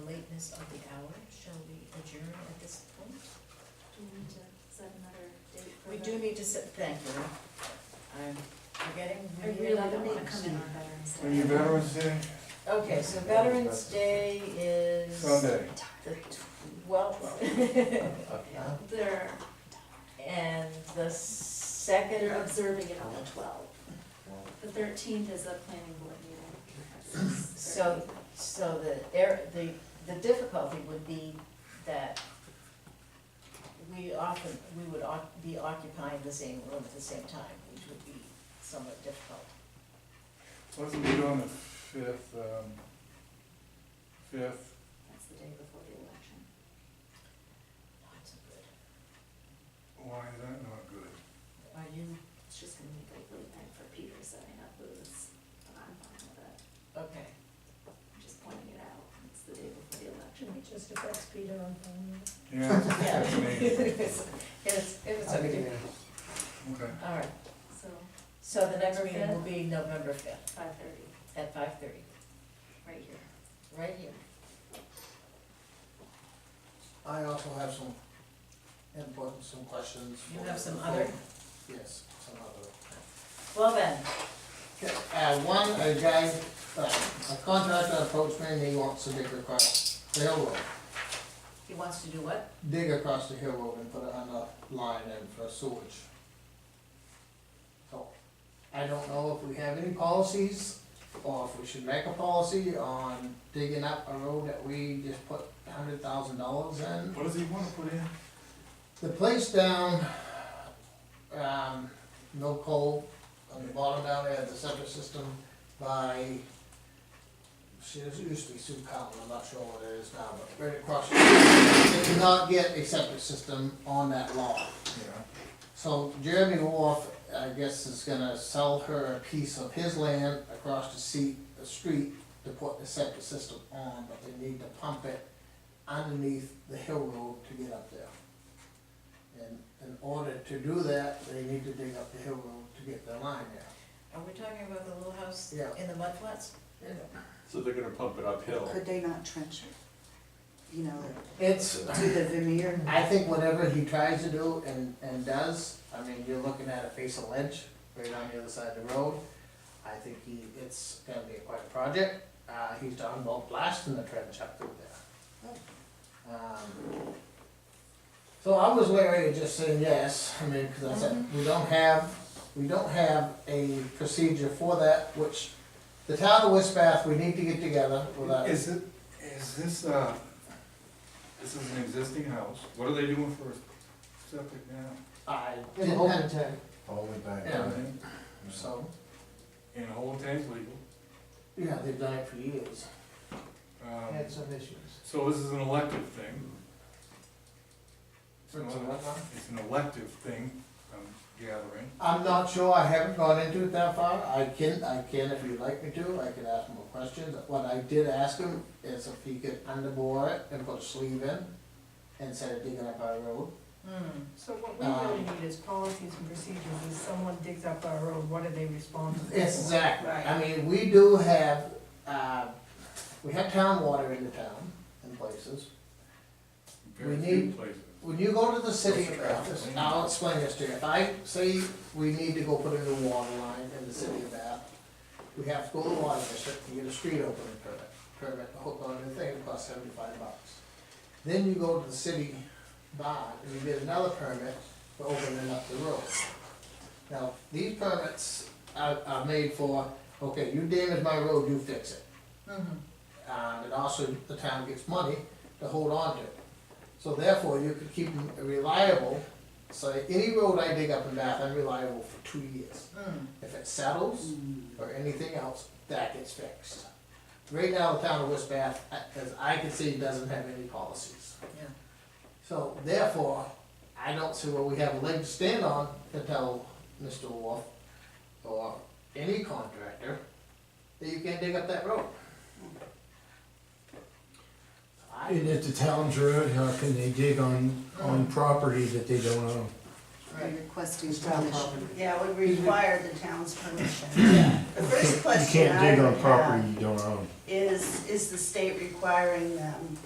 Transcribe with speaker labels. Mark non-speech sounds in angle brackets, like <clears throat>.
Speaker 1: business of the hour, shall we adjourn at this point?
Speaker 2: Do we need to set another date for
Speaker 1: We
Speaker 2: the-
Speaker 1: do need to sit, thank you. I'm forgetting.
Speaker 2: I really don't wanna
Speaker 1: need
Speaker 2: come in on Veterans Day.
Speaker 3: Are you Veterans Day?
Speaker 1: Okay, so Veterans Day is.
Speaker 3: Sunday.
Speaker 1: The twelfth. <laughs>
Speaker 2: They're,
Speaker 1: And the second
Speaker 2: they're
Speaker 1: of,
Speaker 2: observing it on the twelfth. The thirteenth is a planning board meeting.
Speaker 1: <clears throat> so, so the, air- the, the difficulty would be that we often, we would oc- be occupying the same room at the same time, which would be somewhat difficult.
Speaker 3: Wasn't it on the fifth, um, fifth?
Speaker 2: That's the day before the election.
Speaker 1: Not so good.
Speaker 3: Why is that not good?
Speaker 1: Are you,
Speaker 2: It's just gonna make a late night for Peter setting up booths, but I'm fine with it.
Speaker 1: okay.
Speaker 2: I'm just pointing it out. It's the day before the election.
Speaker 4: Should we just affects Peter on phone?
Speaker 1: <laughs>
Speaker 3: Yeah,
Speaker 1: Yeah.
Speaker 3: that's
Speaker 1: <laughs>
Speaker 3: me.
Speaker 1: It's, it's it's okay.
Speaker 3: Okay.
Speaker 1: All right,
Speaker 2: So,
Speaker 1: so the next meeting will be November fifth
Speaker 2: five thirty,
Speaker 1: at five thirty,
Speaker 2: right here.
Speaker 1: right here.
Speaker 5: I also have some input and some questions.
Speaker 1: You
Speaker 5: for-
Speaker 1: have some other?
Speaker 5: Yes, some other.
Speaker 1: Well then,
Speaker 5: Okay, uh, one, a guy, uh, a contractor approached me and he wants to dig across the hill road.
Speaker 1: he wants to do what?
Speaker 5: Dig across the hill road and put another line in for sewage. So, I don't know if we have any policies or if we should make a policy on digging up a road that we just put a hundred thousand dollars in.
Speaker 3: What does he wanna put in?
Speaker 5: The place down, um, no coal, on the bottom down there, the septic system by, shit, it used to be Sioux County, I'm not sure what it is now, but right across. the They did not get a septic system on that lot.
Speaker 3: Yeah.
Speaker 5: So Jeremy Wolf, I guess, is gonna sell her a piece of his land across the seat, the street to put the septic system on, but they need to pump it underneath the hill road to get up there. And in order to do that, they need to dig up the hill road to get the line there.
Speaker 1: Are we talking about the little house
Speaker 5: Yeah.
Speaker 1: in the mud flats?
Speaker 6: So they're gonna pump it uphill.
Speaker 7: Could they not trench it? You know,
Speaker 5: It's,
Speaker 7: do the veneer?
Speaker 5: I think whatever he tries to do and, and does, I mean, you're looking at a face of lynch right on the other side of the road. I think he, it's gonna be quite a project, uh, he's talking about blasting the trench up through there. Um, So I was wary of just saying yes, I mean, cause I said, we don't have, we don't have a procedure for that, which the town of West Bath, we need to get together with that.
Speaker 3: Is it, is this, uh, this is an existing house, what are they doing for septic now?
Speaker 5: I didn't have,
Speaker 8: Only back.
Speaker 5: Yeah. so,
Speaker 3: And the whole tank's legal,
Speaker 5: yeah, they've done it for years.
Speaker 3: um,
Speaker 5: some issues.
Speaker 3: so this is an elective thing. It's
Speaker 5: It's
Speaker 3: an- It's an elective thing, I'm gathering.
Speaker 5: I'm not sure, I haven't gone into it that far, I can, I can if you'd like me to, I can ask more questions. What I did ask him is if he could underbore it and put a sleeve in, instead of digging up our road.
Speaker 1: Hmm,
Speaker 4: So what we really need is policies and procedures, if someone digs up our road, what are they responsible for?
Speaker 5: Exactly, I
Speaker 4: Right.
Speaker 5: mean, we do have, uh, we have town water in the town in places.
Speaker 3: Very
Speaker 5: We
Speaker 3: few
Speaker 5: need-
Speaker 3: places.
Speaker 5: When you go to the city
Speaker 3: Those are
Speaker 5: of Bath,
Speaker 3: traffic.
Speaker 5: I'll explain this to you, if I say we need to go put in a water line in the city of Bath, we have to go to the water district to get a street opening permit, permit to hook onto the thing, it costs seventy-five bucks. Then you go to the city bond, and you get another permit for opening up the road. Now, these permits are, are made for, okay, you damage my road, you fix it.
Speaker 1: mhm.
Speaker 5: Um, and also the town gets money to hold on to. So therefore, you could keep them reliable, so any road I dig up in Bath, I'm reliable for two years.
Speaker 1: Mm.
Speaker 5: If it settles or anything else, that gets fixed. Right now, the town of West Bath, a- as I can see, doesn't have any policies.
Speaker 1: Yeah.
Speaker 5: So therefore, I don't see where we have a leg to stand on to tell Mr. Wolf or any contractor that you can't dig up that road. I,
Speaker 8: And if the town's road, how can they dig on, on property that they don't own?
Speaker 7: Are you requesting
Speaker 5: it's town
Speaker 7: permission?
Speaker 5: property.
Speaker 9: Yeah, would require the town's permission. The
Speaker 8: You
Speaker 9: first question
Speaker 8: can't
Speaker 9: I
Speaker 8: dig on
Speaker 9: would have
Speaker 8: property you don't own.
Speaker 9: is, is the state requiring them